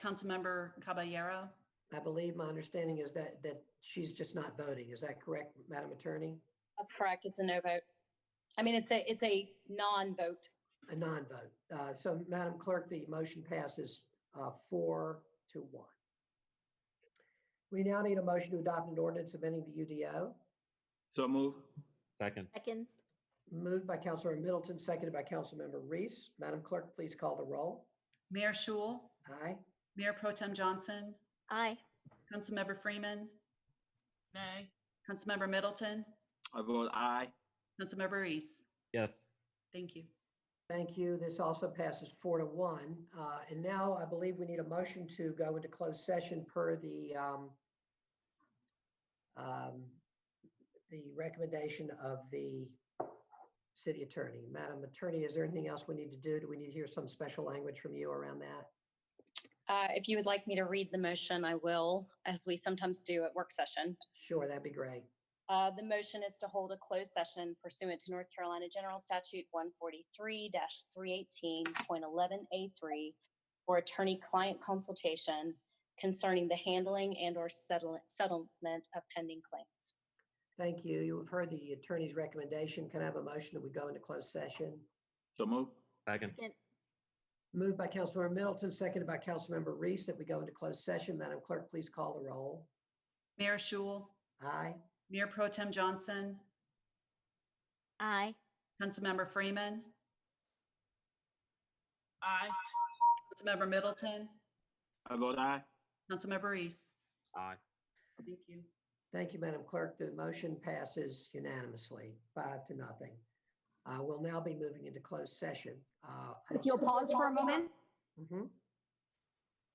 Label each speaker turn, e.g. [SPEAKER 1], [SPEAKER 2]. [SPEAKER 1] Councilmember Caballero?
[SPEAKER 2] I believe my understanding is that, that she's just not voting. Is that correct, Madam Attorney?
[SPEAKER 3] That's correct. It's a no vote. I mean, it's a, it's a non-vote.
[SPEAKER 2] A non-vote. Uh, So Madam Clerk, the motion passes uh, four to one. We now need a motion to adopt an ordinance amending the UDO,
[SPEAKER 4] So move.
[SPEAKER 5] Second,
[SPEAKER 6] Second,
[SPEAKER 2] moved by Councilor Middleton, seconded by Councilmember Reese. Madam Clerk, please call the roll.
[SPEAKER 1] Mayor Shul?
[SPEAKER 2] Aye.
[SPEAKER 1] Mayor Pro Tem Johnson?
[SPEAKER 6] aye.
[SPEAKER 1] Councilmember Freeman?
[SPEAKER 7] nay,
[SPEAKER 1] Councilmember Middleton?
[SPEAKER 4] I vote aye.
[SPEAKER 1] Councilmember Reese?
[SPEAKER 5] yes,
[SPEAKER 1] Thank you.
[SPEAKER 2] Thank you. This also passes four to one. Uh, And now I believe we need a motion to go into closed session per the um, um, the recommendation of the city attorney. Madam Attorney, is there anything else we need to do? Do we need to hear some special language from you around that?
[SPEAKER 3] Uh, if you would like me to read the motion, I will, as we sometimes do at work session.
[SPEAKER 2] Sure, that'd be great.
[SPEAKER 3] Uh, the motion is to hold a closed session pursuant to North Carolina General Statute one forty-three three eighteen point eleven A three for attorney-client consultation concerning the handling and or settle- settlement of pending claims.
[SPEAKER 2] Thank you. You have heard the attorney's recommendation. Can I have a motion that we go into closed session?
[SPEAKER 4] So move.
[SPEAKER 5] second,
[SPEAKER 6] Second,
[SPEAKER 2] Moved by Councilmember Middleton, seconded by Councilmember Reese, that we go into closed session. Madam Clerk, please call the roll.
[SPEAKER 1] Mayor Shul?
[SPEAKER 2] Aye.
[SPEAKER 1] Mayor Pro Tem Johnson?
[SPEAKER 6] aye.
[SPEAKER 1] Councilmember Freeman?
[SPEAKER 7] aye.
[SPEAKER 1] Councilmember Middleton?
[SPEAKER 4] I vote aye.
[SPEAKER 1] Councilmember Reese?
[SPEAKER 5] aye.
[SPEAKER 1] Thank you.
[SPEAKER 2] Thank you, Madam Clerk. The motion passes unanimously, five to nothing. Uh, We'll now be moving into closed session. Uh,
[SPEAKER 3] If you'll pause for a moment.
[SPEAKER 2] Mhm.